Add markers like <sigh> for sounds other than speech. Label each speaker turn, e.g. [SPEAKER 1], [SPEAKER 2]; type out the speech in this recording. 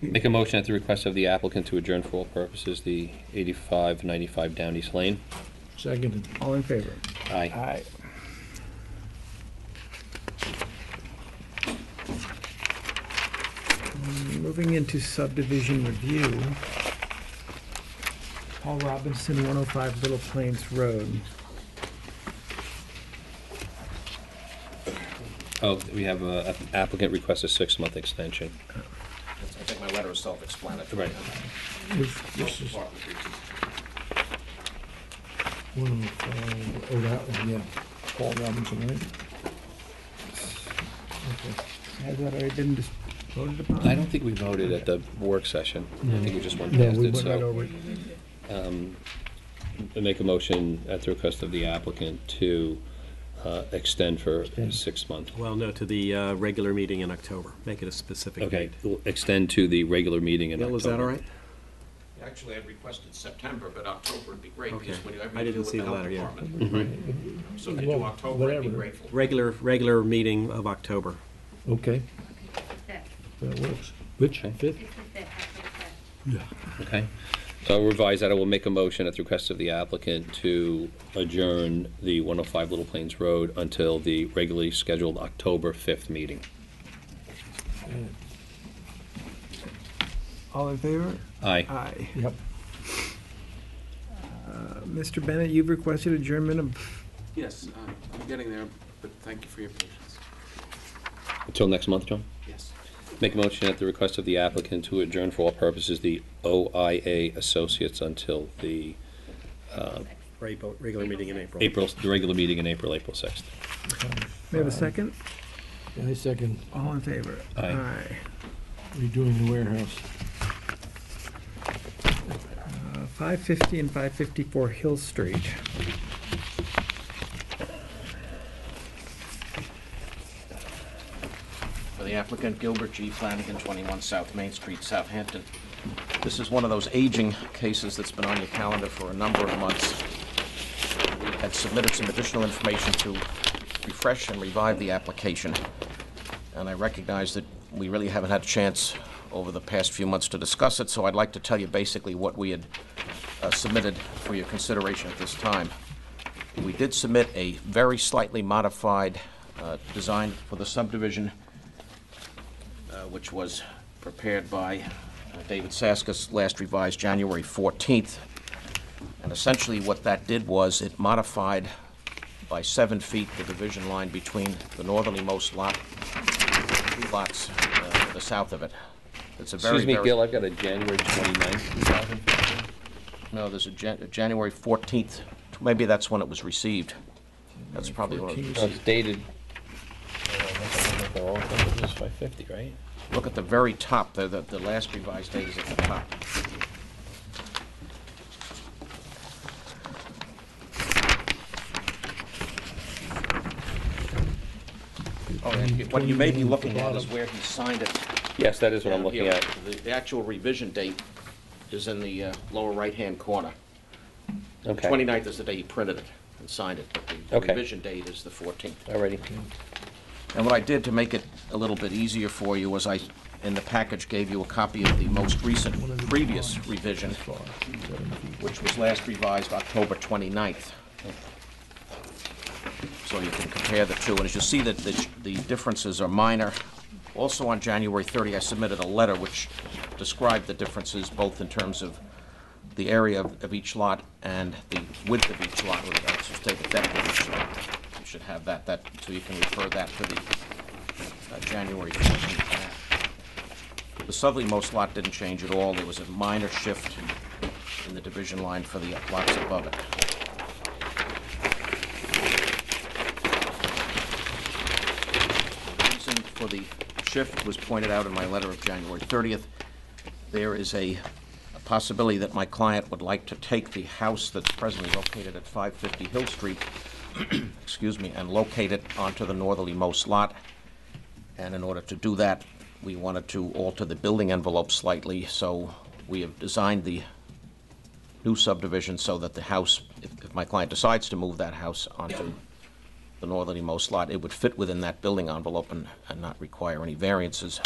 [SPEAKER 1] Make a motion at the request of the applicant to adjourn for all purposes the 8595 Down East Lane.
[SPEAKER 2] Seconded.
[SPEAKER 3] All in favor?
[SPEAKER 1] Aye.
[SPEAKER 3] Aye. Moving into subdivision review. Paul Robinson, 105 Little Plains Road.
[SPEAKER 1] Oh, we have uh, applicant requests a six-month extension.
[SPEAKER 4] I think my letter is self-explanatory.
[SPEAKER 1] Right.
[SPEAKER 2] This this is
[SPEAKER 4] Department reasons.
[SPEAKER 2] 105, oh, that one, yeah. Paul Robinson, right?
[SPEAKER 3] Has that already been dis- voted upon?
[SPEAKER 1] I don't think we voted at the work session. I think we just went
[SPEAKER 2] No,
[SPEAKER 1] past
[SPEAKER 2] we
[SPEAKER 1] it,
[SPEAKER 2] went right
[SPEAKER 1] so.
[SPEAKER 2] over it.
[SPEAKER 1] I Make a motion at the request of the applicant to uh, extend for six months.
[SPEAKER 5] Well, no, to the uh, regular meeting in October. Make it a specific
[SPEAKER 1] Okay,
[SPEAKER 5] date.
[SPEAKER 1] we'll extend to the regular meeting in
[SPEAKER 5] Bill,
[SPEAKER 1] October.
[SPEAKER 5] is that all right?
[SPEAKER 4] Actually, I requested September, but October would be great,
[SPEAKER 5] Okay.
[SPEAKER 4] because when you have
[SPEAKER 5] I
[SPEAKER 4] to
[SPEAKER 5] didn't
[SPEAKER 4] do with
[SPEAKER 5] see
[SPEAKER 4] the
[SPEAKER 5] the
[SPEAKER 4] health
[SPEAKER 5] letter, yeah.
[SPEAKER 4] department. right? So if you do
[SPEAKER 2] Well,
[SPEAKER 4] October, I'd be
[SPEAKER 2] whatever.
[SPEAKER 4] grateful.
[SPEAKER 5] Regular, regular meeting of October.
[SPEAKER 2] Okay,
[SPEAKER 6] Fifth,
[SPEAKER 2] that works. Which,
[SPEAKER 1] Okay.
[SPEAKER 2] fifth?
[SPEAKER 6] it's the fifth, October fifth.
[SPEAKER 1] Okay. So I'll revise that. I will make a motion at the request of the applicant to adjourn the 105 Little Plains Road until the regularly scheduled October 5th meeting.
[SPEAKER 3] All in favor?
[SPEAKER 1] Aye.
[SPEAKER 3] Aye.
[SPEAKER 2] Yep.
[SPEAKER 3] Uh, Mr. Bennett, you've requested adjournment of,
[SPEAKER 7] Yes, uh, I'm getting there, but thank you for your patience.
[SPEAKER 1] Until next month, John?
[SPEAKER 7] Yes.
[SPEAKER 1] Make a motion at the request of the applicant to adjourn for all purposes the OIA Associates until the
[SPEAKER 5] Regular regular meeting in April.
[SPEAKER 1] April, the regular meeting in April, April 6th.
[SPEAKER 3] may I have a second?
[SPEAKER 2] I second,
[SPEAKER 3] All in favor?
[SPEAKER 1] Aye.
[SPEAKER 2] redoing the warehouse.
[SPEAKER 3] Uh, 550 and 554 Hill Street.
[SPEAKER 4] for the applicant Gilbert G. Flanagan, 21 South Main Street, Southampton. This is one of those aging cases that's been on your calendar for a number of months. We had submitted some additional information to refresh and revive the application, and I recognize that we really haven't had a chance over the past few months to discuss it, so I'd like to tell you basically what we had uh, submitted for your consideration at this time. We did submit a very slightly modified uh, design for the subdivision, uh, which was prepared by uh, David Saskis, last revised January 14th. And essentially, what that did was it modified by seven feet the division line between the northernlymost lot, two lots uh, to the south of it. It's a very,
[SPEAKER 1] Excuse me,
[SPEAKER 4] very-
[SPEAKER 1] Gil, I've got a January 29th.
[SPEAKER 4] No, there's a Jan- a January 14th, maybe that's when it was received. That's probably when it was
[SPEAKER 2] 14th.
[SPEAKER 1] No, It's dated. oh, It's 550, right?
[SPEAKER 4] Look at the very top, the, the, the last revised date is at the top. Oh, and what you may be looking at is where he signed it.
[SPEAKER 1] Yes, that is what I'm
[SPEAKER 4] down
[SPEAKER 1] looking
[SPEAKER 4] here.
[SPEAKER 1] at.
[SPEAKER 4] The, the actual revision date is in the, uh, lower right-hand corner.
[SPEAKER 1] Okay.
[SPEAKER 4] 29th is the day he printed it and signed it, but the- the
[SPEAKER 1] Okay.
[SPEAKER 4] revision date is the fourteenth.
[SPEAKER 1] Alrighty.
[SPEAKER 4] And what I did to make it a little bit easier for you was I, in the package, gave you a copy of the most recent previous revision, which was last revised October 29th. So you can compare the two, and as you see that the the differences are minor. Also on January 30, I submitted a letter which described the differences both in terms of the area of of each lot and the width of each lot, or I should say the depth of each lot. You should have that, that, so you can refer that to the uh, January 14th. map. The southernmost lot didn't change at all, there was a minor shift in the division line for the lots above it. The Reason for the shift was pointed out in my letter of January 30th. There is a a possibility that my client would like to take the house that's presently located at 550 Hill Street, <clears throat> excuse me, and locate it onto the northerlymost lot. And in order to do that, we wanted to alter the building envelope slightly, so we have designed the new subdivision so that the house, if if my client decides to move that house onto the northerlymost lot, it would fit within that building envelope and and not require any variances.